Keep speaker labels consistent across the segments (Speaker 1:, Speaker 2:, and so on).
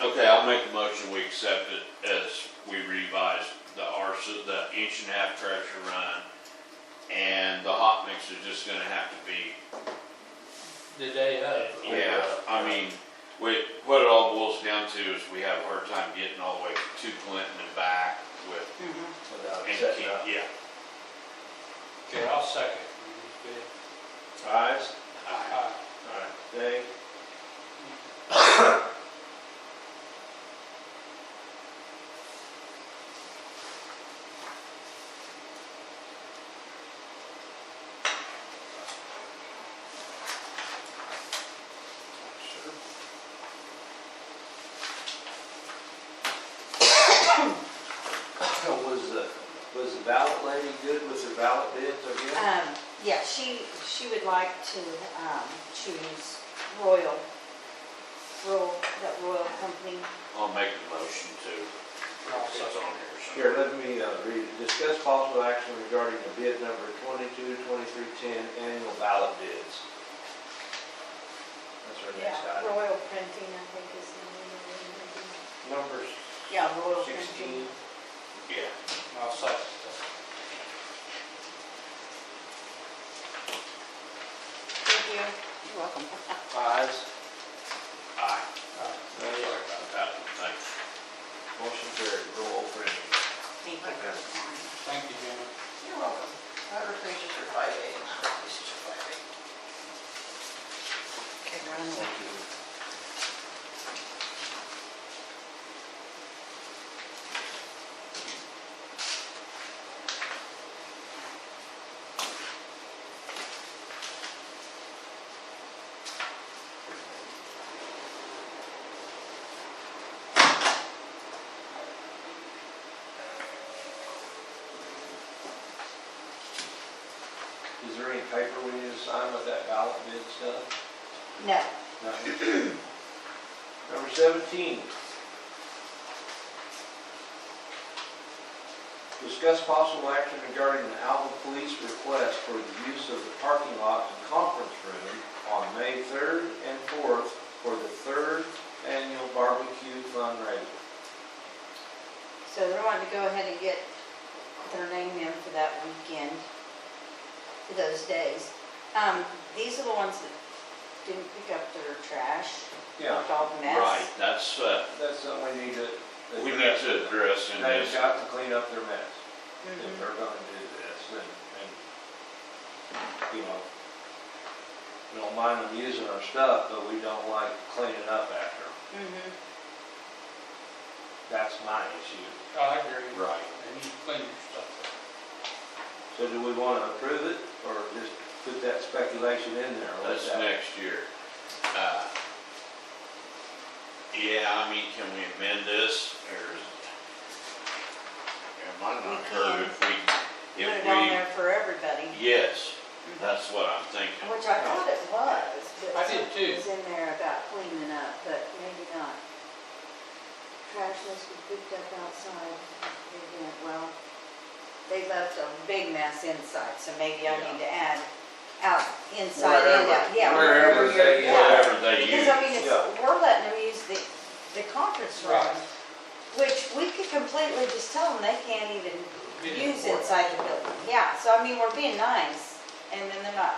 Speaker 1: Okay, I'll make a motion, we accept it as we revised the RC, the inch and a half pressure run. And the hot mix is just gonna have to be,
Speaker 2: the day of.
Speaker 1: yeah, I mean, we, what it all boils down to is we have a hard time getting all the way to Clinton and back with,
Speaker 3: Without
Speaker 1: and,
Speaker 3: setting
Speaker 1: keep-
Speaker 3: up.
Speaker 1: yeah.
Speaker 2: Okay, I'll second.
Speaker 3: Ayes?
Speaker 1: I-
Speaker 2: Aye.
Speaker 3: Aye. Nay? Was the, was the ballot lady good with her ballot bids again?
Speaker 4: Um, yeah, she, she would like to, um, choose Royal, Royal, that Royal company.
Speaker 1: I'll make the motion to,
Speaker 2: I'll
Speaker 1: it's on
Speaker 2: second.
Speaker 1: here,
Speaker 3: Here, let me uh, read it. Discuss possible action regarding the bid number 222310 annual ballot bids. That's our next item.
Speaker 4: Royal Printing, I think is the name
Speaker 3: Number
Speaker 4: of it. Yeah, Royal
Speaker 3: 16.
Speaker 4: Printing.
Speaker 1: so, yeah.
Speaker 2: I'll second.
Speaker 4: Thank you. You're welcome.
Speaker 3: Ayes.
Speaker 1: Aye.
Speaker 2: Aye.
Speaker 1: Sorry about that, thanks.
Speaker 3: Motion carried. Roll printing.
Speaker 4: Thank you.
Speaker 2: Thank you, Jimmy.
Speaker 5: You're welcome. Other pages are five A, this is five A.
Speaker 4: Okay, run away.
Speaker 3: Thank you. Is there any paper we need to sign with that ballot bid stuff?
Speaker 4: No,
Speaker 3: Number 17. Discuss possible action regarding the Alva Police request for the use of the parking lot and conference room on May 3rd and 4th for the third annual barbecue fundraiser.
Speaker 4: so they're wanting to go ahead and get their name in for that weekend, for those days. Um, these are the ones that didn't pick up their trash,
Speaker 3: Yeah,
Speaker 4: all the mess.
Speaker 1: Right, that's, uh,
Speaker 3: that's something we need to.
Speaker 1: we need to address in
Speaker 3: They've
Speaker 1: this,
Speaker 3: got to clean up their mess. if
Speaker 4: Mhm.
Speaker 3: they're gonna do this, and, and, you know, we don't mind them using our stuff, but we don't like cleaning up after them.
Speaker 4: Mhm.
Speaker 3: That's my issue.
Speaker 2: I agree.
Speaker 1: right.
Speaker 2: And you clean your stuff
Speaker 3: So do we wanna approve it, or just put that speculation in there? or
Speaker 1: That's
Speaker 3: let that-
Speaker 1: next year. Uh, Yeah, I mean, can we amend this, or? It might not
Speaker 4: We
Speaker 1: hurt if we,
Speaker 4: Put it on
Speaker 1: if
Speaker 4: there for everybody,
Speaker 1: we, yes, that's what I'm thinking.
Speaker 4: which I thought it was, but.
Speaker 2: I did too.
Speaker 4: It was in there about cleaning up, but maybe not. Trash must be picked up outside, they didn't, well, they left a big mess inside, so maybe I need to add out, inside and out,
Speaker 3: Wherever-
Speaker 4: yeah.
Speaker 3: wherever
Speaker 4: wherever
Speaker 3: they-
Speaker 4: you're- yeah.
Speaker 1: Whatever they
Speaker 4: Because
Speaker 1: use,
Speaker 4: I mean, it's,
Speaker 3: Yeah.
Speaker 4: we're letting them use the, the conference
Speaker 2: there.
Speaker 4: room, which we could completely just tell them they can't even use inside the building. Yeah, so I mean, we're being nice, and then they're not,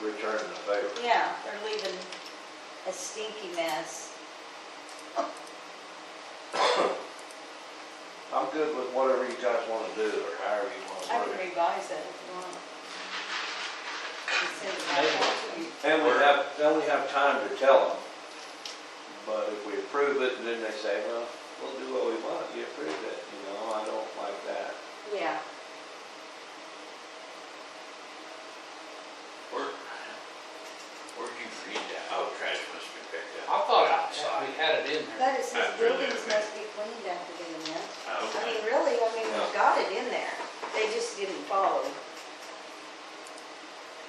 Speaker 3: Return the favor.
Speaker 4: yeah, they're leaving a stinky mess.
Speaker 3: I'm good with whatever you guys wanna do, or however you
Speaker 4: I
Speaker 3: wanna
Speaker 4: can
Speaker 3: do it.
Speaker 4: revise that if you want. Just send it back out to me.
Speaker 3: And we have, then we have time to tell them, but if we approve it, then they say, well, we'll do what we want, you approved it, you know, I don't like that.
Speaker 4: Yeah,
Speaker 1: where, where'd you read that? Oh, trash must be
Speaker 2: I
Speaker 1: picked up.
Speaker 2: thought I- we had it in there.
Speaker 4: but it says
Speaker 1: I'd really-
Speaker 4: buildings must be cleaned after they mess. I
Speaker 1: Okay,
Speaker 4: mean, really, I mean,
Speaker 3: Yeah.
Speaker 4: we got it in there, they just didn't follow.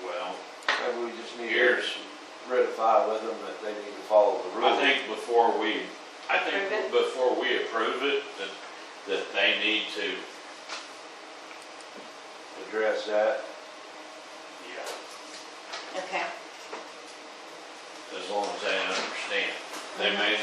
Speaker 1: well,
Speaker 3: Maybe we just need to
Speaker 1: here's,
Speaker 3: ratify with them that they need to follow the
Speaker 1: I
Speaker 3: rules.
Speaker 1: think before we, I
Speaker 4: Approve
Speaker 1: think
Speaker 4: it?
Speaker 1: before we approve it, that, that they need to,
Speaker 3: Address that,
Speaker 1: yeah,
Speaker 4: Okay.
Speaker 1: as long as they understand. They may